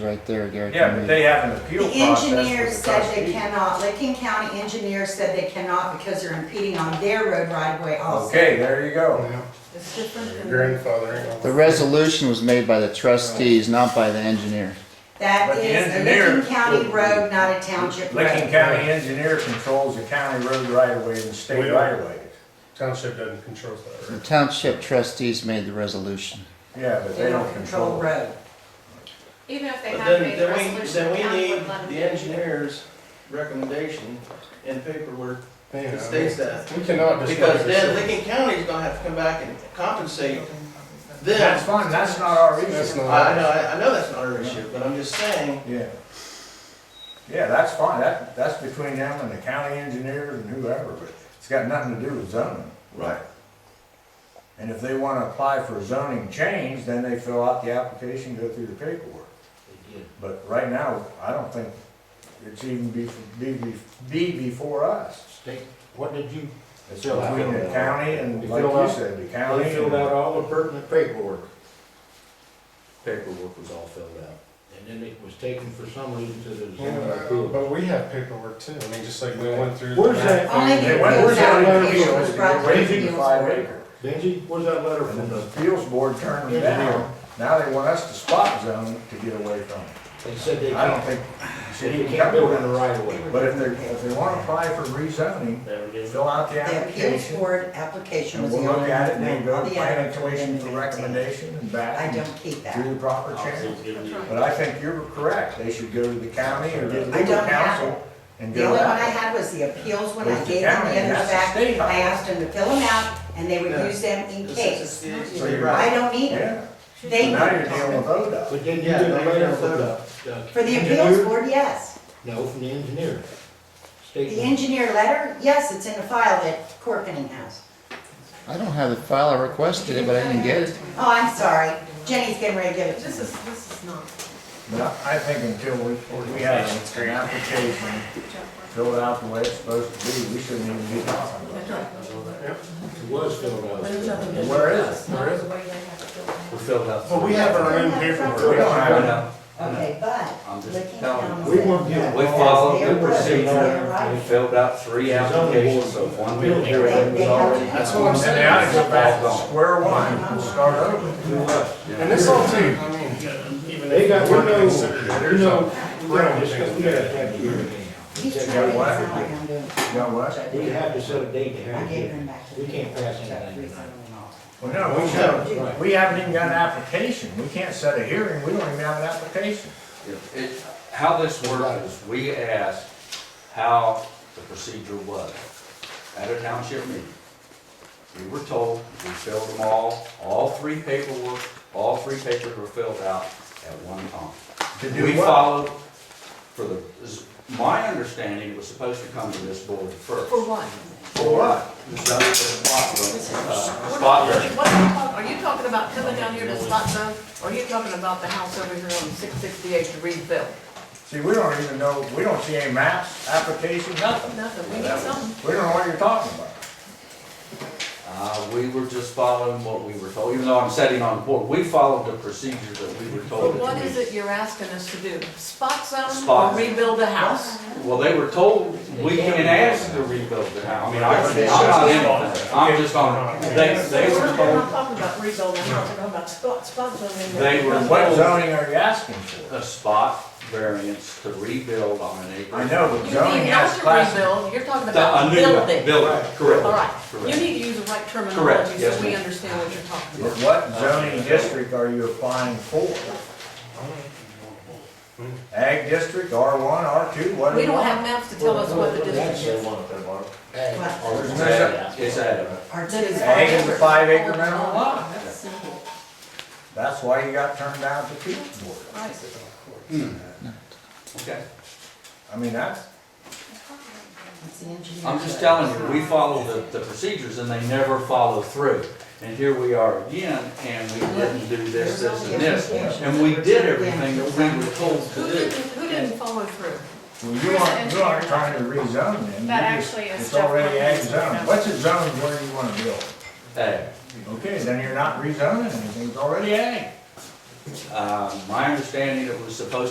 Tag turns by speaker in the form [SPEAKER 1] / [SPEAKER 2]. [SPEAKER 1] right there, Derek.
[SPEAKER 2] Yeah, but they have an appeal
[SPEAKER 3] The
[SPEAKER 2] process. with
[SPEAKER 3] engineer
[SPEAKER 2] the
[SPEAKER 3] said they
[SPEAKER 2] trustee.
[SPEAKER 3] cannot, Licking County engineer said they cannot because they're impeding on their road right of way also.
[SPEAKER 2] Okay, there you go.
[SPEAKER 4] Yeah,
[SPEAKER 5] It's different than.
[SPEAKER 4] grandfathering.
[SPEAKER 1] The resolution was made by the trustees, not by the engineer.
[SPEAKER 3] That
[SPEAKER 2] But the
[SPEAKER 3] is a
[SPEAKER 2] engineer-
[SPEAKER 3] Licking County road, not a township
[SPEAKER 2] Licking
[SPEAKER 3] road.
[SPEAKER 2] County engineer controls the county road right of way and the
[SPEAKER 4] We
[SPEAKER 2] state
[SPEAKER 4] don't.
[SPEAKER 2] right of way.
[SPEAKER 4] Township doesn't control that,
[SPEAKER 1] The
[SPEAKER 4] right?
[SPEAKER 1] township trustees made the resolution.
[SPEAKER 2] Yeah, but
[SPEAKER 3] They don't control
[SPEAKER 2] it.
[SPEAKER 3] road.
[SPEAKER 6] Even if they
[SPEAKER 7] But
[SPEAKER 6] have
[SPEAKER 7] then,
[SPEAKER 6] made a
[SPEAKER 7] then we,
[SPEAKER 6] resolution, the
[SPEAKER 7] then we
[SPEAKER 6] county
[SPEAKER 7] need
[SPEAKER 6] would let them.
[SPEAKER 7] the engineer's recommendation and paperwork
[SPEAKER 4] Yeah, I
[SPEAKER 7] that states
[SPEAKER 4] mean,
[SPEAKER 7] that.
[SPEAKER 4] We cannot just.
[SPEAKER 7] Because then Lincoln County's gonna have to come back and compensate
[SPEAKER 2] That's
[SPEAKER 7] them.
[SPEAKER 2] fine, that's not our
[SPEAKER 4] That's
[SPEAKER 2] issue.
[SPEAKER 4] not-
[SPEAKER 7] I know, I I know that's not our issue, but I'm just saying,
[SPEAKER 2] Yeah. Yeah, that's fine, that, that's between them and the county engineers and whoever, but it's got nothing to do with zoning.
[SPEAKER 7] Right.
[SPEAKER 2] And if they wanna apply for zoning change, then they fill out the application, go through the paperwork. But right now, I don't think it's even be, be, be before us.
[SPEAKER 8] What did you,
[SPEAKER 2] It's
[SPEAKER 8] Fill out.
[SPEAKER 2] between the county and,
[SPEAKER 8] You
[SPEAKER 2] like
[SPEAKER 8] fill
[SPEAKER 2] you
[SPEAKER 8] out-
[SPEAKER 2] said, the county.
[SPEAKER 8] they filled
[SPEAKER 2] and-
[SPEAKER 8] out all the pertinent paperwork. Paperwork was all filled out, and then it was taken for some reason to the zoning
[SPEAKER 4] Yeah,
[SPEAKER 8] appeal.
[SPEAKER 4] But we have paperwork too, I mean, just like we went through.
[SPEAKER 8] Where's
[SPEAKER 4] the-
[SPEAKER 8] that?
[SPEAKER 3] Only the
[SPEAKER 2] They went, where's
[SPEAKER 3] appeals
[SPEAKER 8] Where's that
[SPEAKER 2] that
[SPEAKER 8] letter
[SPEAKER 3] application
[SPEAKER 8] from?
[SPEAKER 3] was
[SPEAKER 2] appeal?
[SPEAKER 3] brought
[SPEAKER 2] They're
[SPEAKER 3] to the
[SPEAKER 2] waiting
[SPEAKER 3] appeals
[SPEAKER 2] for five
[SPEAKER 3] board.
[SPEAKER 2] acre.
[SPEAKER 8] Benji, where's that letter
[SPEAKER 2] And
[SPEAKER 8] from
[SPEAKER 2] then the
[SPEAKER 8] the,
[SPEAKER 2] appeals board turned them down. Now they want us to spot zone to get away from it.
[SPEAKER 8] they said they
[SPEAKER 2] I don't
[SPEAKER 8] can't,
[SPEAKER 2] think,
[SPEAKER 8] said
[SPEAKER 2] city
[SPEAKER 8] you
[SPEAKER 2] can
[SPEAKER 8] can't build in the
[SPEAKER 2] cover
[SPEAKER 8] right of way.
[SPEAKER 2] it. But if they, if they wanna apply for rezoning,
[SPEAKER 8] There it is.
[SPEAKER 2] fill out the
[SPEAKER 3] The appeals
[SPEAKER 2] application.
[SPEAKER 3] board application
[SPEAKER 2] And
[SPEAKER 3] was the
[SPEAKER 2] we'll
[SPEAKER 3] only.
[SPEAKER 2] look at it and
[SPEAKER 3] one
[SPEAKER 2] then go to
[SPEAKER 3] the
[SPEAKER 2] planning
[SPEAKER 3] other
[SPEAKER 2] commission for
[SPEAKER 3] didn't
[SPEAKER 2] recommendation and
[SPEAKER 3] I
[SPEAKER 2] back and
[SPEAKER 3] don't keep
[SPEAKER 2] do
[SPEAKER 3] that.
[SPEAKER 2] the proper channel. But I think you're correct. They should go to the county or get
[SPEAKER 3] I
[SPEAKER 2] legal
[SPEAKER 3] don't have
[SPEAKER 2] counsel and
[SPEAKER 3] The
[SPEAKER 2] go
[SPEAKER 3] only one I
[SPEAKER 2] that.
[SPEAKER 3] had was the appeals when I
[SPEAKER 2] Those
[SPEAKER 3] gave them
[SPEAKER 2] county,
[SPEAKER 3] the others
[SPEAKER 2] that's a
[SPEAKER 3] back.
[SPEAKER 2] state
[SPEAKER 3] I
[SPEAKER 2] highway.
[SPEAKER 3] asked them to fill them out and they would
[SPEAKER 7] Yeah.
[SPEAKER 3] use them in
[SPEAKER 7] this
[SPEAKER 3] case.
[SPEAKER 7] is, it's,
[SPEAKER 2] So you're
[SPEAKER 3] I
[SPEAKER 7] right.
[SPEAKER 3] don't need them.
[SPEAKER 2] Yeah, so
[SPEAKER 3] They
[SPEAKER 2] now you're
[SPEAKER 3] need
[SPEAKER 2] dealing
[SPEAKER 3] them.
[SPEAKER 2] with ODOT.
[SPEAKER 8] But then you
[SPEAKER 7] Yeah,
[SPEAKER 8] get a
[SPEAKER 7] they
[SPEAKER 8] letter
[SPEAKER 7] never
[SPEAKER 8] from
[SPEAKER 7] filled
[SPEAKER 8] the. the
[SPEAKER 3] For the appeals
[SPEAKER 8] engineer?
[SPEAKER 3] board, yes.
[SPEAKER 8] No, from the engineer.
[SPEAKER 3] The
[SPEAKER 8] Statement,
[SPEAKER 3] engineer letter, yes, it's in the file at Corkening House.
[SPEAKER 1] I don't have the file, I requested it, but I didn't get it.
[SPEAKER 3] Oh, I'm sorry. Jenny's getting ready to give it to
[SPEAKER 5] This
[SPEAKER 3] me.
[SPEAKER 5] is, this is not.
[SPEAKER 2] No, I think until we, we have an application filled out the way it's supposed to be, we shouldn't even be talking about
[SPEAKER 8] it was filled out.
[SPEAKER 2] it. Where is it?
[SPEAKER 5] Not the way they have it built now.
[SPEAKER 4] But we have our own paperwork.
[SPEAKER 2] We don't have enough.
[SPEAKER 3] Okay, but looking down.
[SPEAKER 8] We won't get-
[SPEAKER 9] We followed the procedure, we filled out three applications, so one we were here, it was already.
[SPEAKER 4] That's what I'm
[SPEAKER 2] And
[SPEAKER 4] saying.
[SPEAKER 2] now I go back to square one and start over.
[SPEAKER 4] And this all too, I mean. even
[SPEAKER 8] They
[SPEAKER 4] if
[SPEAKER 8] got,
[SPEAKER 4] we're
[SPEAKER 8] you know,
[SPEAKER 4] considered,
[SPEAKER 8] you
[SPEAKER 4] there's
[SPEAKER 8] know,
[SPEAKER 4] a
[SPEAKER 8] Brown,
[SPEAKER 4] realm
[SPEAKER 8] just 'cause
[SPEAKER 4] thing.
[SPEAKER 8] we had a tech here.
[SPEAKER 3] He's trying to
[SPEAKER 2] got
[SPEAKER 3] make it
[SPEAKER 2] what?
[SPEAKER 3] sound like I'm doing.
[SPEAKER 2] You know what?
[SPEAKER 8] We have to set a date to
[SPEAKER 3] I
[SPEAKER 8] have
[SPEAKER 3] gave
[SPEAKER 8] it.
[SPEAKER 3] them back to
[SPEAKER 8] We
[SPEAKER 3] the.
[SPEAKER 8] can't pass
[SPEAKER 3] check
[SPEAKER 8] anything
[SPEAKER 3] reason
[SPEAKER 8] tonight.
[SPEAKER 3] and all.
[SPEAKER 2] Well, no, we
[SPEAKER 8] Right.
[SPEAKER 2] should we haven't even got an application. We can't set a hearing. We don't even have an application.
[SPEAKER 9] It, how this worked is we asked how the procedure was at a township meeting. We were told, we filled them all, all three paperwork, all three papers were filled out at one time.
[SPEAKER 2] To
[SPEAKER 9] We
[SPEAKER 2] do what?
[SPEAKER 9] followed for the, is- my understanding it was supposed to come to this board first.
[SPEAKER 5] For what?
[SPEAKER 9] For what? The zoning spot zone, uh, spot zone.
[SPEAKER 5] What are you talking, are you talking about coming down here to spot zone? Or are you talking about the house over here on six sixty-eight to rebuild?
[SPEAKER 2] See, we don't even know, we don't see any maps, application, nothing.
[SPEAKER 5] Nothing, we need something.
[SPEAKER 2] We don't know what you're talking about.
[SPEAKER 9] Uh, we were just following what we were told, even though I'm sitting on the board, we followed the procedure that we were told.
[SPEAKER 5] But
[SPEAKER 9] that
[SPEAKER 5] what
[SPEAKER 9] we-
[SPEAKER 5] is it you're asking us to do? Spot zone
[SPEAKER 9] Spot
[SPEAKER 5] or
[SPEAKER 9] zone.
[SPEAKER 5] rebuild a house?
[SPEAKER 9] Well, they were told, we can ask to rebuild the house, I mean, I, I'm not in, it. I'm just on, they, they were
[SPEAKER 5] We're
[SPEAKER 9] told,
[SPEAKER 5] not talking about rebuilding a house, we're talking about spot, spot zone.
[SPEAKER 9] they were
[SPEAKER 2] What
[SPEAKER 9] told
[SPEAKER 2] zoning are you asking for?
[SPEAKER 9] a spot variance to rebuild on an acre.
[SPEAKER 2] I know, but
[SPEAKER 5] You
[SPEAKER 2] zoning
[SPEAKER 5] mean
[SPEAKER 2] has
[SPEAKER 5] not to
[SPEAKER 2] class.
[SPEAKER 5] rebuild, you're talking
[SPEAKER 9] A
[SPEAKER 5] about
[SPEAKER 9] new building,
[SPEAKER 5] building.
[SPEAKER 9] correct.
[SPEAKER 5] All right, you
[SPEAKER 9] Correct.
[SPEAKER 5] need to use the right
[SPEAKER 9] Correct,
[SPEAKER 5] terminology
[SPEAKER 9] yes,
[SPEAKER 5] so we
[SPEAKER 9] ma'am.
[SPEAKER 5] understand what you're talking
[SPEAKER 2] But
[SPEAKER 5] about.
[SPEAKER 2] what zoning district are you applying for? Ag district, R one, R two, what do
[SPEAKER 5] We
[SPEAKER 2] you
[SPEAKER 5] don't have
[SPEAKER 2] want?
[SPEAKER 5] maps to tell us what the district is.
[SPEAKER 3] But
[SPEAKER 9] It's added, it's added.
[SPEAKER 3] our
[SPEAKER 5] That is-
[SPEAKER 3] five
[SPEAKER 2] Ag is a five acre minimum lot.
[SPEAKER 5] That's simple.
[SPEAKER 2] That's why you got turned down at the appeals board.
[SPEAKER 5] Right.
[SPEAKER 9] Okay,
[SPEAKER 2] I mean, that's,
[SPEAKER 3] It's the engineer.
[SPEAKER 9] I'm just telling you, we follow the, the procedures and they never follow through. And here we are again, and we didn't do this, this, and this, and we did everything that we were told to
[SPEAKER 5] Who
[SPEAKER 9] do.
[SPEAKER 5] didn't, who didn't follow through?
[SPEAKER 2] well, you
[SPEAKER 6] Here's
[SPEAKER 2] aren't,
[SPEAKER 6] the
[SPEAKER 2] you aren't
[SPEAKER 6] engineer.
[SPEAKER 2] trying to rezone them.
[SPEAKER 6] That
[SPEAKER 2] You just-
[SPEAKER 6] actually is
[SPEAKER 2] It's already
[SPEAKER 6] Jeff
[SPEAKER 2] ag
[SPEAKER 6] Horn's
[SPEAKER 2] zone.
[SPEAKER 6] zone.
[SPEAKER 2] What's a zone where you wanna build?
[SPEAKER 9] Hey,
[SPEAKER 2] Okay, then you're not rezoning anything, it's already ag.
[SPEAKER 9] uh, my understanding, it was supposed